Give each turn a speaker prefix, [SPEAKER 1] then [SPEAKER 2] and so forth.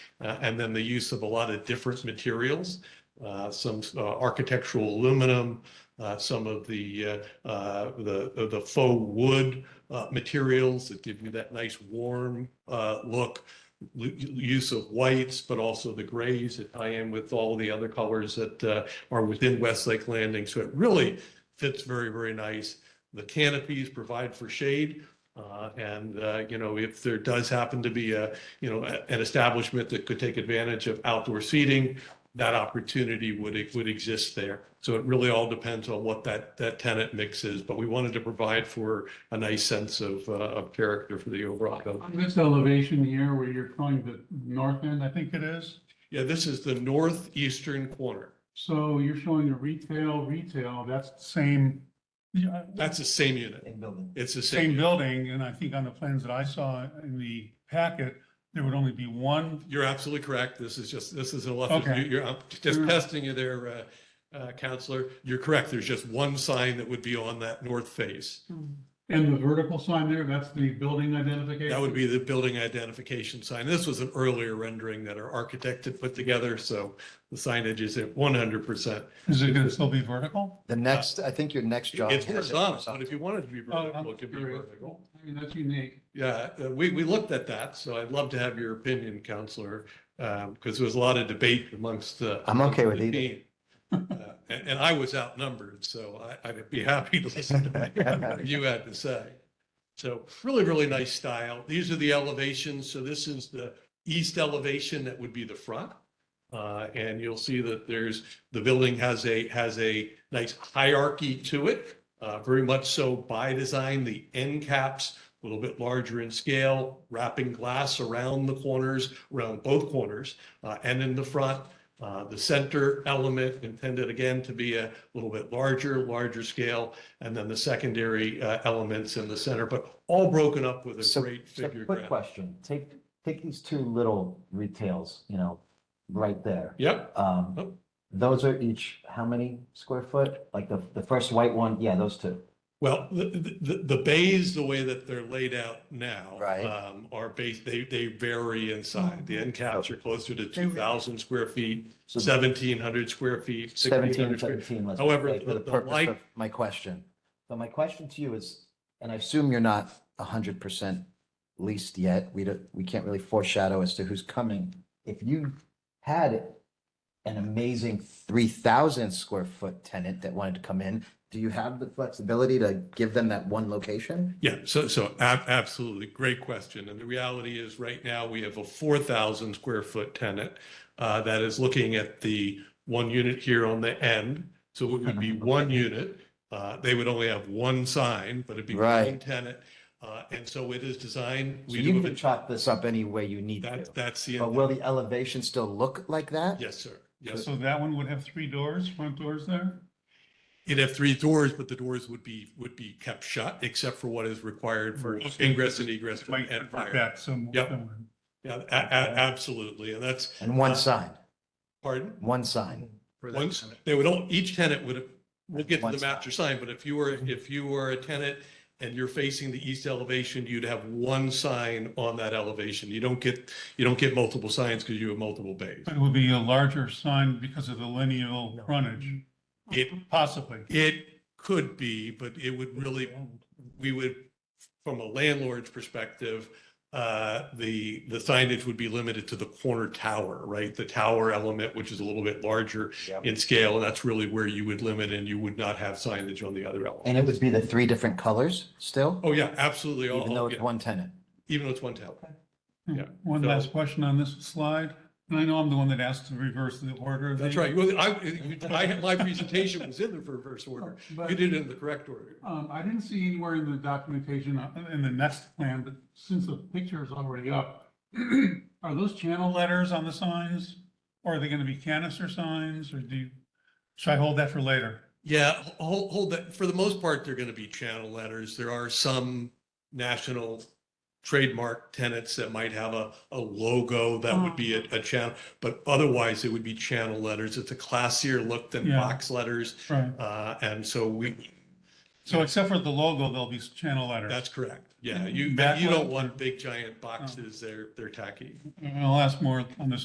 [SPEAKER 1] uh, and then the use of a lot of different materials, uh, some uh, architectural aluminum, uh, some of the, uh, uh, the, the faux wood uh, materials that give you that nice warm uh, look, l- use of whites, but also the grays that tie in with all the other colors that uh, are within Westlake Landing. So it really fits very, very nice. The canopies provide for shade. uh, And, uh, you know, if there does happen to be a, you know, a- an establishment that could take advantage of outdoor seating, that opportunity would, would exist there. So it really all depends on what that, that tenant mix is. But we wanted to provide for a nice sense of, uh, of character for the overall building.
[SPEAKER 2] On this elevation here where you're calling the north end, I think it is,
[SPEAKER 1] Yeah, this is the northeastern corner.
[SPEAKER 2] so you're showing the retail, retail, that's the same. yeah,
[SPEAKER 1] That's the same unit.
[SPEAKER 3] Same building.
[SPEAKER 1] It's the same.
[SPEAKER 2] Same
[SPEAKER 1] unit.
[SPEAKER 2] building, and I think on the plans that I saw in the packet, there would only be one.
[SPEAKER 1] You're absolutely correct. This is just, this is a left,
[SPEAKER 2] Okay.
[SPEAKER 1] you're, I'm just
[SPEAKER 2] Mm.
[SPEAKER 1] testing you there, uh, uh, Counselor. You're correct. There's just one sign that would be on that north face.
[SPEAKER 2] And the vertical sign there, that's the building identification?
[SPEAKER 1] That would be the building identification sign. This was an earlier rendering that our architect had put together, so the signage is at one hundred percent.
[SPEAKER 2] Is it gonna still be vertical?
[SPEAKER 3] The next, I think your next job.
[SPEAKER 1] It's
[SPEAKER 3] has it
[SPEAKER 1] horizontal, but
[SPEAKER 3] horizontal.
[SPEAKER 1] if you wanted to be
[SPEAKER 2] Oh,
[SPEAKER 1] vertical, it could be
[SPEAKER 2] curious.
[SPEAKER 1] vertical.
[SPEAKER 2] I mean, that's unique.
[SPEAKER 1] Yeah, uh, we, we looked at that, so I'd love to have your opinion, Counselor, because there was a lot of debate amongst the.
[SPEAKER 3] I'm okay with
[SPEAKER 1] the
[SPEAKER 3] either.
[SPEAKER 1] team. Uh, And, and I was outnumbered, so I, I'd be happy to listen to what you had to say. So really, really nice style. These are the elevations. So this is the east elevation that would be the front. Uh, and you'll see that there's, the building has a, has a nice hierarchy to it. Uh, very much so by design, the end caps, a little bit larger in scale, wrapping glass around the corners, around both corners, uh, and in the front. Uh, the center element intended again to be a little bit larger, larger scale, and then the secondary, uh, elements in the center, but all broken up with a
[SPEAKER 3] So-
[SPEAKER 1] great
[SPEAKER 3] so
[SPEAKER 1] figure
[SPEAKER 3] Quick
[SPEAKER 1] graph.
[SPEAKER 3] question, take, take these two little retails, you know, right there.
[SPEAKER 1] Yep, Oh.
[SPEAKER 3] Um, those are each, how many square foot? Like the, the first white one, yeah, those two.
[SPEAKER 1] Well, the, the- the, the bays, the way that they're laid out now.
[SPEAKER 3] Right. Oh,
[SPEAKER 1] Um, are based, they, they vary in size. The end caps are closer to two thousand square feet,
[SPEAKER 3] So
[SPEAKER 1] seventeen hundred square feet, sixteen
[SPEAKER 3] Seventeen
[SPEAKER 1] hundred
[SPEAKER 3] and
[SPEAKER 1] square.
[SPEAKER 3] seventeen. let's
[SPEAKER 1] However,
[SPEAKER 3] say,
[SPEAKER 1] the-
[SPEAKER 3] For the
[SPEAKER 1] the
[SPEAKER 3] purpose
[SPEAKER 1] light-
[SPEAKER 3] of my question. So my question to you is, and I assume you're not a hundred percent leased yet. We don't, we can't really foreshadow as to who's coming. If you had an amazing three thousand square foot tenant that wanted to come in, do you have the flexibility to give them that one location?
[SPEAKER 1] Yeah, so, so ab- absolutely, great question. And the reality is, right now, we have a four thousand square foot tenant uh, that is looking at the one unit here on the end. So it would
[SPEAKER 3] Mm-hmm.
[SPEAKER 1] be one unit. Uh, They would only have one sign, but it'd be one
[SPEAKER 3] Right.
[SPEAKER 1] tenant. Uh, And so it is designed.
[SPEAKER 3] So
[SPEAKER 1] we
[SPEAKER 3] you
[SPEAKER 1] do
[SPEAKER 3] can
[SPEAKER 1] it-
[SPEAKER 3] chop this up any way you need
[SPEAKER 1] That's,
[SPEAKER 3] to.
[SPEAKER 1] that's the,
[SPEAKER 3] But will the elevation still look like that?
[SPEAKER 1] yes, sir. Yes,
[SPEAKER 2] So that one would have three doors, front doors there?
[SPEAKER 1] it'd have three doors, but the doors would be, would be kept shut except for what is required for
[SPEAKER 2] Okay.
[SPEAKER 1] ingress and egress
[SPEAKER 2] It
[SPEAKER 1] and
[SPEAKER 2] Might
[SPEAKER 1] and
[SPEAKER 2] convert
[SPEAKER 1] fire.
[SPEAKER 2] that some.
[SPEAKER 1] Yep.
[SPEAKER 2] somewhere.
[SPEAKER 1] Yeah, a- a- absolutely. And that's,
[SPEAKER 3] And one
[SPEAKER 1] Uh,
[SPEAKER 3] sign,
[SPEAKER 1] pardon?
[SPEAKER 3] one sign.
[SPEAKER 1] Once, they would all, each tenant would, we'll get to
[SPEAKER 3] One
[SPEAKER 1] the master sign, but if you were, if you were a tenant and you're facing the east elevation, you'd have one sign on that elevation. You don't get, you don't get multiple signs because you have multiple bays.
[SPEAKER 2] But it would be a larger sign because of the lineal frontage,
[SPEAKER 1] It,
[SPEAKER 2] possibly.
[SPEAKER 1] it could be, but it would really, we would, from a landlord's perspective, uh, the, the signage would be limited to the corner tower, right? The tower element, which is a little bit larger
[SPEAKER 3] Yep.
[SPEAKER 1] in scale, and that's really where you would limit and you would not have signage on the other element.
[SPEAKER 3] And it would be the three different colors still,
[SPEAKER 1] Oh, yeah, absolutely. All-
[SPEAKER 3] even though it's
[SPEAKER 1] yeah,
[SPEAKER 3] one tenant?
[SPEAKER 1] Even though it's one town. Yeah,
[SPEAKER 2] Hmm. One
[SPEAKER 1] so-
[SPEAKER 2] last question on this slide, and I know I'm the one that asked to reverse the order. of
[SPEAKER 1] That's
[SPEAKER 2] these,
[SPEAKER 1] right. Well, I, you- I, my presentation was in the reverse order.
[SPEAKER 2] but,
[SPEAKER 1] You did it in the correct order.
[SPEAKER 2] Um, I didn't see anywhere in the documentation, uh, in the next plan, but since the picture is already up, are those channel letters on the signs? Or are they gonna be canister signs, or do, you- should I hold that for later?
[SPEAKER 1] Yeah, hold, hold that. For the most part, they're going to be channel letters. There are some national trademark tenants that might have a, a logo that would be a, a channel, but otherwise it would be channel letters. It's a classier look than
[SPEAKER 2] Yeah.
[SPEAKER 1] box letters.
[SPEAKER 2] Right,
[SPEAKER 1] Uh, and so we,
[SPEAKER 2] so except for the logo, there'll be s- channel letters.
[SPEAKER 1] that's correct. Yeah,
[SPEAKER 2] And
[SPEAKER 1] you,
[SPEAKER 2] that
[SPEAKER 1] you don't
[SPEAKER 2] one- Oh.
[SPEAKER 1] want big giant boxes. They're, they're tacky.
[SPEAKER 2] And I'll ask more on this